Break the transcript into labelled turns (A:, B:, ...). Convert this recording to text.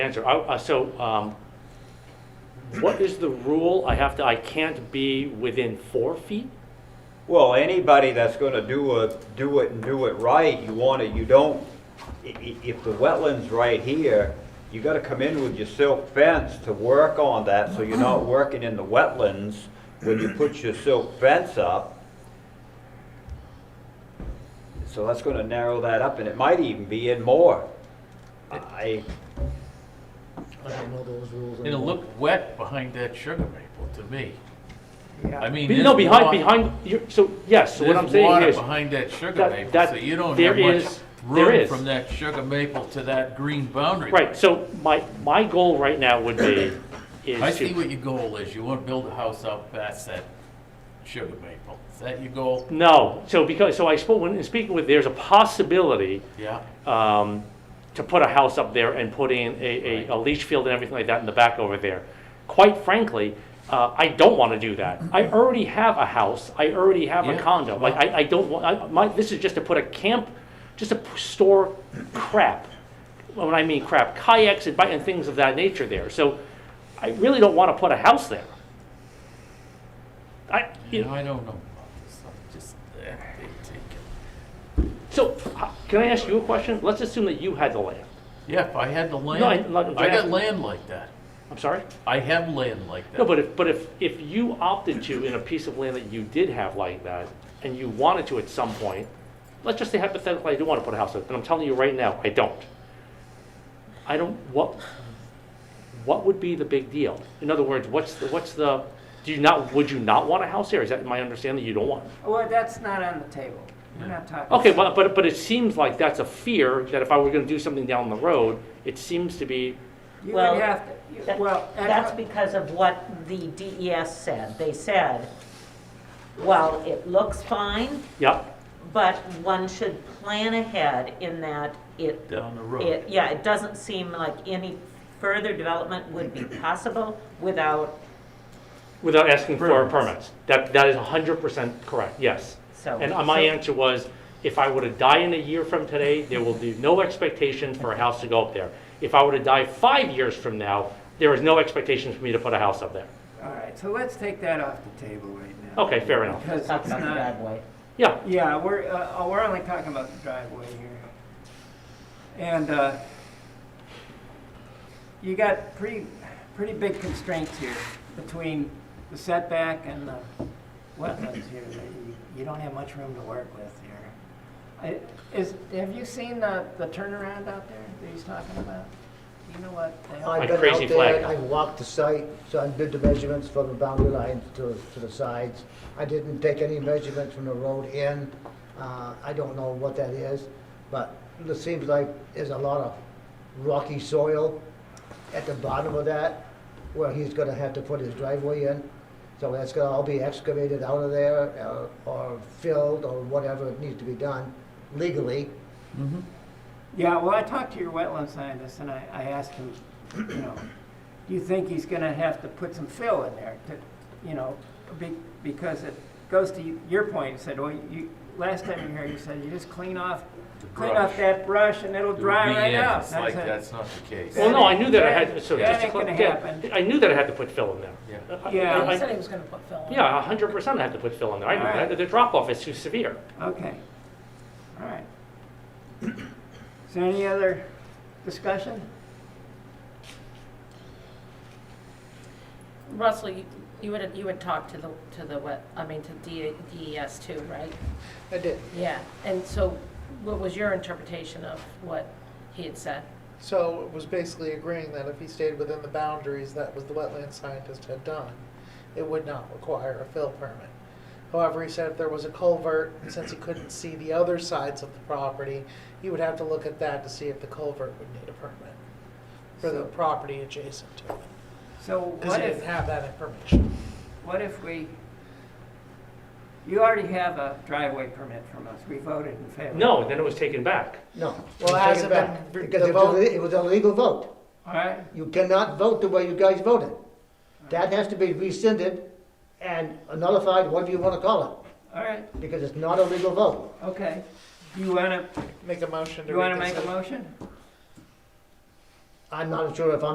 A: answer. I- uh, So um, what is the rule? I have to, I can't be within four feet?
B: Well, anybody that's gonna do a, do it and do it right, you wanna, you don't, i- i- if the wetland's right here, you gotta come in with your silk fence to work on that, so you're not working in the wetlands when you put your silk fence up. So that's gonna narrow that up, and it might even be in more. I,
C: I don't know those rules.
D: It'll
C: anymore.
D: look wet behind that sugar maple to me. I mean.
A: Be- No,
D: there's
A: behind,
D: wa-
A: behind, you- so, yes, so what I'm saying is,
D: There's water behind that sugar
A: that-
D: maple,
A: that-
D: so you don't
A: there
D: have much
A: is- there
D: room
A: is.
D: from that sugar maple to that green boundary. line.
A: right, so my, my goal right now would be,
D: I
A: is
D: see
A: to,
D: what your goal is. You want to build a house out past that sugar maple. Is that your goal?
A: no, so because, so I spoke, when speaking with, there's a possibility
D: Yeah.
A: um, to put a house up there and put in a, a, a leach field and everything like that in the back over there. Quite frankly, uh, I don't want to do that. I already have a house. I already have a
D: Yeah,
A: condo. Like I, I don't want. I, my this is just to put a camp, just to p- store crap. When I mean crap, kayaks and, bi- and things of that nature there. So I really don't want to put a house there. I, you
D: You know, I don't know about this. I'm just, eh, they take it.
A: so uh, can I ask you a question? Let's assume that you had the land.
D: Yeah, if I had the land,
A: I'm not- I'm
D: I got
A: asking-
D: land like that.
A: I'm sorry.
D: I have land like that.
A: No, but if, but if, if you opted to in a piece of land that you did have like that, and you wanted to at some point, let's just say hypothetically, I do wanna put a house up, and I'm telling you right now, I don't. I don't, what, what would be the big deal? In other words, what's, the what's the, do you not, would you not want a house there? Is that my understanding, you don't want?
E: Well, that's not on the table. We're not talking.
A: Okay, but, but, but it seems like that's a fear, that if I were gonna do something down the road, it seems to be,
E: You
F: Well,
E: would have to, you-
F: That-
E: well. I-
F: That's because of what the DES said. They said, well, it looks fine,
A: yep,
F: but one should plan ahead in that it.
D: Down the road.
F: it- Yeah, it doesn't seem like any further development would be possible without,
A: without asking for permits. That, that is hundred percent correct, yes.
F: so.
A: And uh, my
F: so-
A: answer was, if I were to die in a year from today, there will be no expectation for a house to go up there. If I were to die five years from now, there is no expectation for me to put a house up there.
E: All right, so let's take that off the table right now.
A: Okay, fair enough.
E: Because
F: Talk
E: it's
F: about the
E: not,
F: driveway.
A: Yeah,
E: yeah, we're, uh, oh, we're only talking about the driveway here. And, uh, you got pretty, pretty big constraints here between the setback and the wetlands here. that You you don't have much room to work with here. I- Is, have you seen the, the turnaround out there that he's talking about? Do you know what? they are?
A: Like
C: I've been
A: crazy
C: out there,
A: flag.
C: I walked the site, so I did the measurements from the boundary lines to, to the sides. I didn't take any measurements from the road in, uh, I don't know what that is, but it seems like there's a lot of rocky soil at the bottom of that, where he's gonna have to put his driveway in. So that's gonna all be excavated out of there, uh, or filled, or whatever needs to be done legally.
E: Yeah, well, I talked to your wetland scientist and I, I asked him, you know, do you think he's gonna have to put some fill in there to, you know, be, because it goes to your point, you said, well, you, last time you were here, you said, you just clean off, clean off
D: brush.
E: that brush and it'll
D: It would
E: dry
D: be
E: right
D: in.
E: out.
D: It's like,
E: That's
D: that's
E: it.
D: not the case.
A: well, no, I knew that I had, so
E: That
A: just to
E: ain't gonna
A: cl- yeah,
E: happen.
A: I knew that I had to put fill in there.
D: Yeah.
A: I-
E: Yeah.
A: I-
G: He said he was gonna put Phil on.
A: Yeah, a hundred percent I had to put fill in there. I knew
E: Alright.
A: that, the drop off is too severe.
E: Okay, all right. Is there any other discussion?
G: Russell, you, you had, you had talked to the, to the what, I mean, to D- DES too, right?
C: I did.
G: Yeah, and so what was your interpretation of what he had said?
H: So it was basically agreeing that if he stayed within the boundaries that was the wetland scientist had done, it would not require a fill permit. However, he said if there was a culvert, since he couldn't see the other sides of the property, he would have to look at that to see if the culvert would need a permit for the
E: So-
H: property adjacent to it,
E: So
H: because
E: what
H: he
E: if?
H: didn't have that information.
E: What if we, you already have a driveway permit from us, we voted in favor.
A: No, then it was taken back.
C: No.
H: Well,
C: Take
H: hasn't
C: it back,
H: been-
C: Because
H: the
C: it was,
H: vote-
C: a- it was a legal vote.
E: All right,
C: You cannot vote the way you guys voted. That has to be rescinded and nullified, whatever you want to call
E: all right,
C: it, because it's not a legal vote.
E: okay. You wanna,
H: Make a motion to
E: you wanna make
H: reconsider.
E: a motion?
C: I'm not sure if I'm